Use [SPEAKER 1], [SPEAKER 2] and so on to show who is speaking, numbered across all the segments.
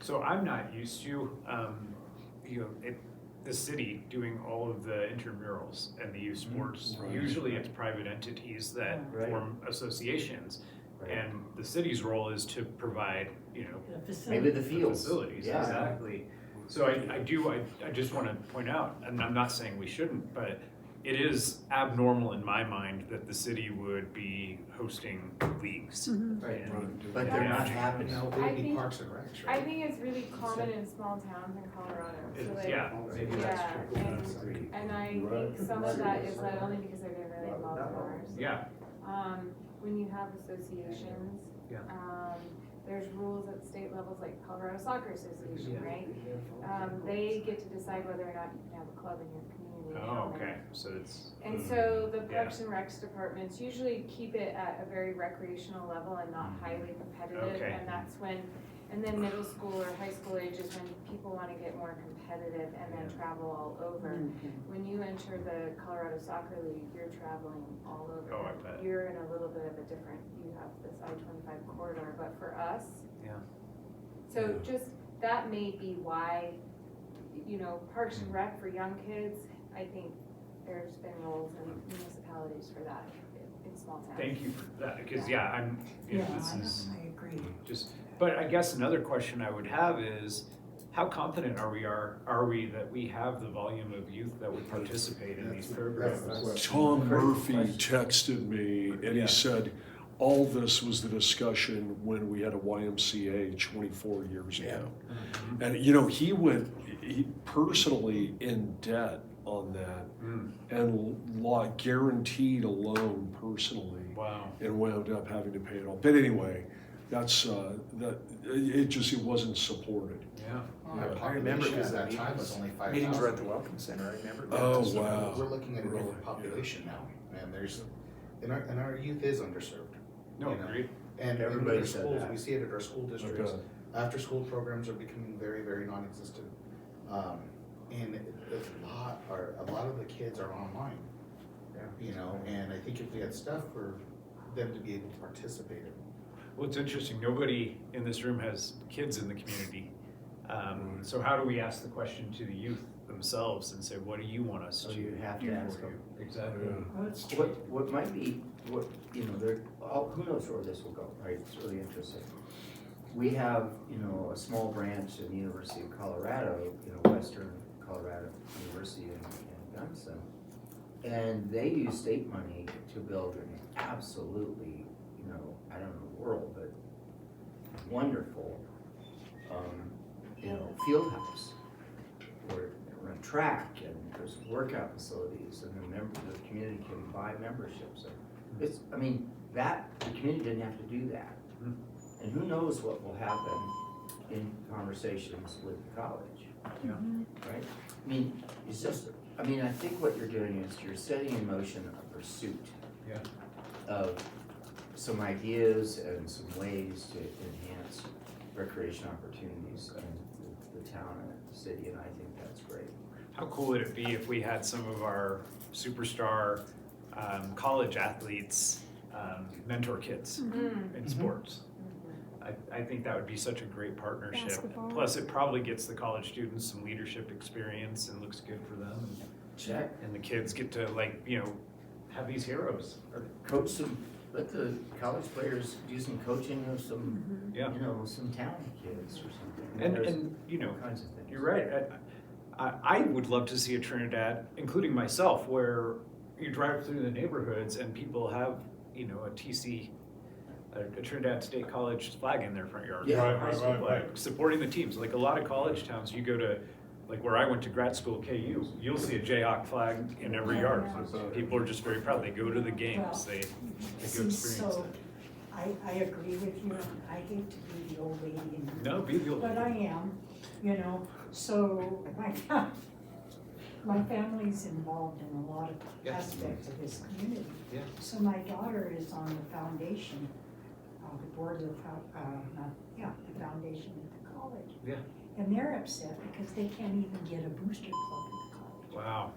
[SPEAKER 1] So I'm not used to, um, you know, it, the city doing all of the intramurals and the youth
[SPEAKER 2] Mm-hmm.
[SPEAKER 1] sports.
[SPEAKER 3] Right.
[SPEAKER 1] Usually it's private entities that
[SPEAKER 3] Right.
[SPEAKER 1] form associations.
[SPEAKER 3] Right.
[SPEAKER 1] And the city's role is to provide, you know,
[SPEAKER 4] in a
[SPEAKER 3] Maybe
[SPEAKER 4] facility.
[SPEAKER 3] the
[SPEAKER 1] the
[SPEAKER 3] fields,
[SPEAKER 1] Facilities,
[SPEAKER 3] yeah.
[SPEAKER 1] exactly. So I, I do, I, I just wanna point out, and I'm not saying we shouldn't, but it is abnormal in my mind that the city would be hosting leagues.
[SPEAKER 4] Mm-hmm.
[SPEAKER 3] Right.
[SPEAKER 1] And-
[SPEAKER 3] But they're not
[SPEAKER 1] Yeah.
[SPEAKER 3] happening.
[SPEAKER 2] No,
[SPEAKER 5] I
[SPEAKER 2] it'd be
[SPEAKER 5] think-
[SPEAKER 2] Parks and Recs,
[SPEAKER 5] I
[SPEAKER 2] right?
[SPEAKER 5] think it's really common in small towns in Colorado, so
[SPEAKER 1] It's-
[SPEAKER 5] like,
[SPEAKER 1] Yeah,
[SPEAKER 2] Maybe that's
[SPEAKER 5] yeah,
[SPEAKER 2] true.
[SPEAKER 5] and-
[SPEAKER 2] That's great.
[SPEAKER 5] and I think some of that is led only because I didn't really love ours.
[SPEAKER 1] yeah,
[SPEAKER 5] Um, when you have associations,
[SPEAKER 1] Yeah.
[SPEAKER 5] um, there's rules at state levels, like Colorado Soccer Association, right? Um, they get to decide whether or not you can have a club in your community. and how
[SPEAKER 1] oh,
[SPEAKER 5] many.
[SPEAKER 1] okay, so it's.
[SPEAKER 5] And so the
[SPEAKER 1] Mm. Yeah.
[SPEAKER 5] Parks and Recs departments usually keep it at a very recreational level and not highly competitive.
[SPEAKER 1] Mm. Okay.
[SPEAKER 5] And that's when, and then middle school or high school age is when people want to get more competitive and then travel all over. When you enter the Colorado Soccer League, you're traveling all over.
[SPEAKER 1] Oh, I bet.
[SPEAKER 5] You're in a little bit of a different, you have this I twenty-five corridor, but for us.
[SPEAKER 1] Yeah.
[SPEAKER 5] So just, that may be why, you know, Parks and Rec for young kids, I think there's been roles in municipalities for that in- in small towns.
[SPEAKER 1] Thank you for that, because yeah, I'm, you
[SPEAKER 4] Yeah,
[SPEAKER 1] know, this
[SPEAKER 4] I
[SPEAKER 1] is
[SPEAKER 4] know, I agree.
[SPEAKER 1] just, but I guess another question I would have is, how confident are we are, are we that we have the volume of youth that would participate in these
[SPEAKER 2] That's the
[SPEAKER 1] programs?
[SPEAKER 2] question.
[SPEAKER 6] Tom
[SPEAKER 2] Great
[SPEAKER 6] Murphy
[SPEAKER 2] question.
[SPEAKER 6] texted me and
[SPEAKER 1] Yeah.
[SPEAKER 6] he said, all this was the discussion when we had a YMCA twenty-four years ago.
[SPEAKER 1] Mhm.
[SPEAKER 6] And, you know, he went, he personally in debt on that
[SPEAKER 1] Mm,
[SPEAKER 6] and law guaranteed a loan personally
[SPEAKER 1] Wow,
[SPEAKER 6] and wound up having to pay it off. But anyway, that's, uh, that, it, it just, it wasn't supported.
[SPEAKER 1] yeah,
[SPEAKER 2] I remember because that time was only five thousand.
[SPEAKER 7] Meetings were at the Welcome Center, I remember.
[SPEAKER 6] Oh,
[SPEAKER 7] So
[SPEAKER 6] wow.
[SPEAKER 2] We're looking at a
[SPEAKER 6] Really?
[SPEAKER 2] different population now, and there's, and our, and our youth is underserved.
[SPEAKER 1] no,
[SPEAKER 2] You know,
[SPEAKER 1] agreed,
[SPEAKER 2] And in
[SPEAKER 7] Everybody
[SPEAKER 2] our
[SPEAKER 7] said
[SPEAKER 2] schools,
[SPEAKER 7] that.
[SPEAKER 2] we see it at our school districts,
[SPEAKER 6] Okay.
[SPEAKER 2] after-school programs are becoming very, very non-existent. Um, and there's a lot, are, a lot of the kids are online. You know, and I think if we had stuff for them to be able to participate in,
[SPEAKER 1] well, it's interesting, nobody in this room has kids in the community. Um, so how do we ask the question to the youth themselves and say, what do you want us
[SPEAKER 3] So
[SPEAKER 1] to do
[SPEAKER 3] you have
[SPEAKER 1] for
[SPEAKER 3] to ask them.
[SPEAKER 1] you? Exactly,
[SPEAKER 6] Yeah.
[SPEAKER 4] Oh, it's true.
[SPEAKER 3] What, what might be, what, you know, there, all- who knows where this will go, right, it's really interesting. We have, you know, a small branch in the University of Colorado, you know, Western Colorado University in, in Gunnison. And they use state money to build an absolutely, you know, I don't know the world, but wonderful, um, you know, field house. Where they run track and there's workout facilities and the member, the community can buy memberships. And It's, I mean, that, the community didn't have to do that.
[SPEAKER 1] Hmm.
[SPEAKER 3] And who knows what will happen in conversations with the college,
[SPEAKER 1] yeah,
[SPEAKER 3] right? I mean, it's just, I mean, I think what you're doing is you're setting in motion a pursuit.
[SPEAKER 1] Yeah.
[SPEAKER 3] Of some ideas and some ways to enhance recreation opportunities in the- the town and the city, and I think that's great.
[SPEAKER 1] How cool would it be if we had some of our superstar um, college athletes um, mentor kids
[SPEAKER 5] Mm.
[SPEAKER 1] in sports? I, I think that would be such a great partnership.
[SPEAKER 8] Basketball.
[SPEAKER 1] Plus, it probably gets the college students some leadership experience and looks good for them.
[SPEAKER 3] Check.
[SPEAKER 1] And the kids get to like you know have these heroes.
[SPEAKER 3] Coach some, let the college players do some coaching of some, you
[SPEAKER 1] Yeah.
[SPEAKER 3] know, some talented kids or something. I mean,
[SPEAKER 1] Mm-hmm. And
[SPEAKER 3] there's
[SPEAKER 1] and you know
[SPEAKER 3] all kinds of things.
[SPEAKER 1] You're right. I, I, I would love to see a Trinidad, including myself, where you drive through the neighborhoods and people have, you know, a TC, a, a Trinidad State College flag in their front yard,
[SPEAKER 3] Yeah.
[SPEAKER 1] or a
[SPEAKER 3] Right,
[SPEAKER 1] high school flag, supporting the teams. Like a lot of college towns, you go to, like where I went to grad school, KU, you'll see a Jayhawk flag in every yard. People are just very proud. They go to the games. They, they go
[SPEAKER 4] Seems
[SPEAKER 1] experience
[SPEAKER 4] so,
[SPEAKER 1] it.
[SPEAKER 4] I, I agree with you, and I hate to be the old lady in the room.
[SPEAKER 1] No, be the old
[SPEAKER 4] But I
[SPEAKER 1] lady.
[SPEAKER 4] am, you know, so my, fa- my family's involved in a lot of
[SPEAKER 1] Yeah.
[SPEAKER 4] aspects of this community.
[SPEAKER 1] Yeah.
[SPEAKER 4] So my daughter is on the foundation, uh, the board of, the fo- uh, not- yeah, the foundation at the college.
[SPEAKER 1] Yeah.
[SPEAKER 4] And they're upset because they can't even get a booster club at the college.
[SPEAKER 1] Wow.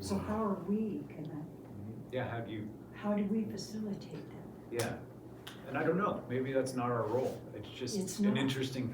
[SPEAKER 4] So how are we gonna,
[SPEAKER 1] Yeah, how do you
[SPEAKER 4] how do we facilitate that?
[SPEAKER 1] Yeah, and I don't know, maybe that's not our role, it's just
[SPEAKER 4] It's
[SPEAKER 1] an
[SPEAKER 4] not.
[SPEAKER 1] interesting thing.